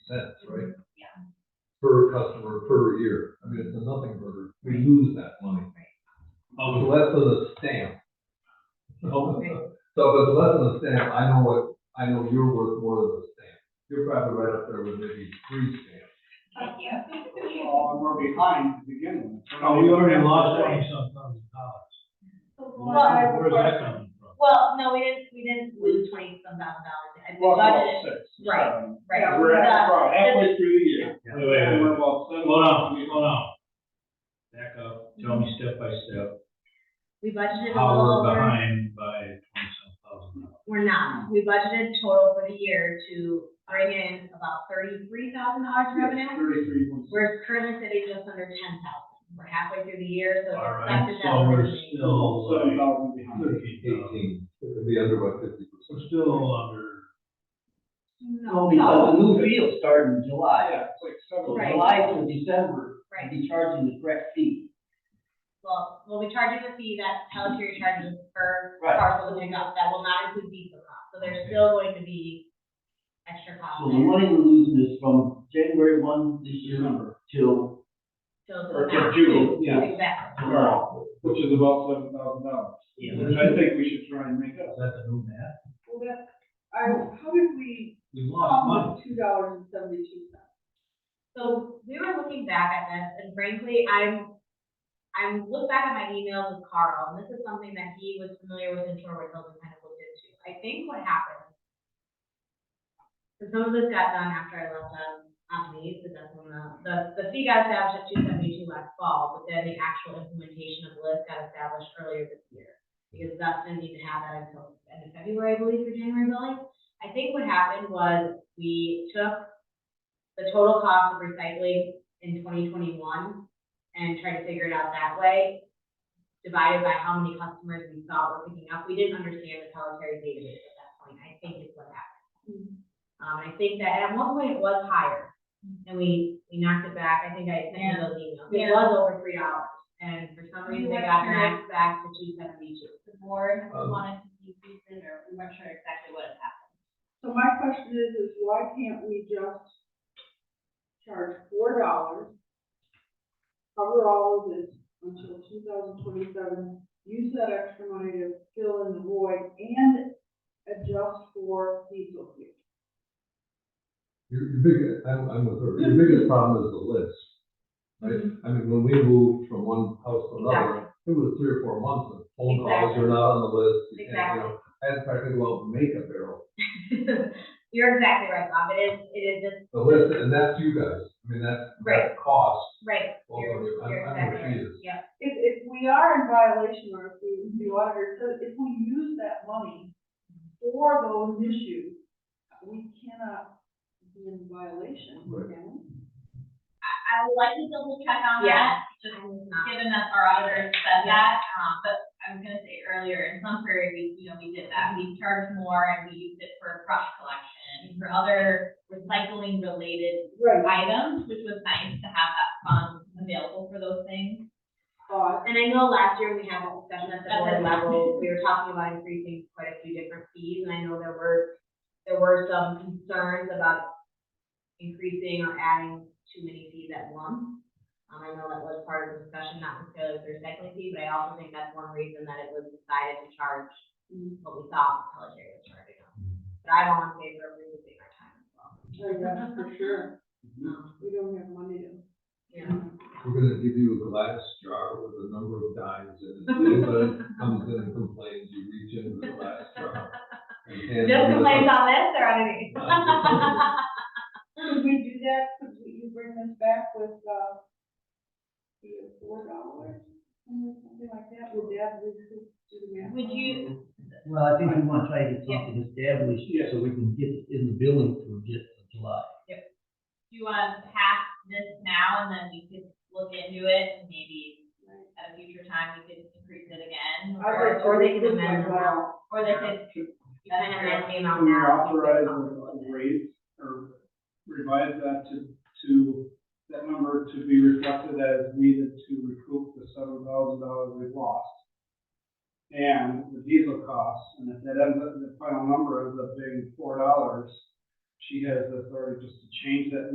cents, right? Yeah. Per customer, per year. I mean, it's a nothing burger. We lose that money. So Oh, less than a stamp. So Right. so if it's less than a stamp, I know what, I know you're worth more than a stamp. You're probably right up there with maybe three stamps. Yeah. Well, and we're behind to begin with. Oh, we already lost twenty-some thousand dollars. Well, Where's that coming from? Well, no, we didn't, we didn't lose twenty some thousand dollars, I We're about budgeted, six, Right, seven. right. We're at, The- about halfway through the year. Wait, wait, wait, And wait. we're about seven. hold on, hold on. Back up, tell me step by step, we budgeted a how little we're over, behind by twenty-some thousand dollars. we're not, we budgeted total for the year to bring in about thirty-three thousand dollars revenue. Thirty-three point six. We're currently sitting just under ten thousand, we're halfway through the year, so. it's All right, expected that so we're we're gonna be- still Seven like thousand behind. thirteen thousand, Eighteen, it would be under by fifty so percent. still under. No, because the new fee will start in July, Yeah, it's like seven. so Right. July through December, Right. we'll be charging the correct fee. well, we'll be charging the fee that Pelletier charges per Right. parcel to pick up, that will not include diesel costs, so there's Okay. still going to be extra costs So the there. money we're losing is from January one this year till, So it's Or not- to June, yeah, Exactly. Right. which is about seven thousand dollars. Yeah. Which I think we should try and make up. Is that the new math? Well, that, I, how did we We lost come Um, money. with two dollars and seventy-two cents? So we were looking back at this, and frankly, I'm, I looked back at my email with Carl, and this is something that he was familiar with in Shorewood Hills and kind of looked into. I think what happened, so some of this got done after I left on, on leave, because that's when the, the, the fee got established at two seventy-two last fall, but then the actual implementation of the list got established earlier this year. Because that's gonna need to have that until the end of February, I believe, for January billing. I think what happened was we took the total cost of recycling in twenty twenty-one and try to figure it out that way, divided by how many customers we thought were picking up. We didn't understand the Pelletary database at that point, I think is what happened. Mm-hmm. Um, I think that at one point it was higher, and we, we knocked it back, I think I sent you those emails. Yeah. It was over three dollars, and for some We reason it went got through- knocked back to two seventy-two. The board Um, wanted to decrease it, or we weren't sure exactly what had happened. So my question is, is why can't we just charge four dollars, cover all of this until two thousand twenty-seven, use that extra money to fill in the void and adjust for diesel fuel? Your, your biggest, I'm, I'm with her, your biggest problem is the list, right? I mean, when we moved from one house to another, it was three or four months of phone calls, you're not on the list. you can't, you know. I had to try to figure out makeup barrel, You're exactly right, Bob, it is, it is just, the list, and that's you guys, I mean, that, that cost. right, Well, You're- I'm- you're I'm exactly right, confused. yeah. If, if we are in violation or if we, the auditor says, if we use that money for those issues, we cannot be in violation, Right. can we? I would like to double check on that, Yeah. just I'm not- given that our auditor said that, um, but I was gonna say earlier, in some prairie, we, you know, we did that. We charged more and we used it for brush collection, for other recycling related Right. items, which was nice to have that fund available for those things. But And I know last year we had a discussion at the board Okay. level, we were talking about increasing quite a few different fees, and I know there were, there were some concerns about increasing or adding too many fees at once. Um, I know that was part of the discussion, not necessarily the recycling fee, but I also think that's one reason that it was decided to charge what we thought Pelletary was charging us. Mm-hmm. But I don't want to favor reducing our time as well. oh, that's for sure, Mm-hmm. Um, we don't have money to. Yeah. We're gonna give you a glass jar with a number of dimes in it, anybody comes in and complains, you reach into the glass jar. and hand Just them the- complaints on this or on anything? Could we do that, could we- you bring this back with, uh, the four dollars, something like that, would that, would this do the math? Would you, Well, I think we wanna try to get something established, so we can get it in the billing for just July. do you want to pass this now and then we could look into it and maybe at a future time we could increase it again? I'd Or, like to or they can read this amend one them. out. or they could, You kind of ran the amount We are now. authorized to raise or revise that to, to, that number to be reflected as needed to recoup the seven thousand dollars we've lost. And the diesel costs, and if that ends up, the final number ends up being four dollars, she has the authority just to change that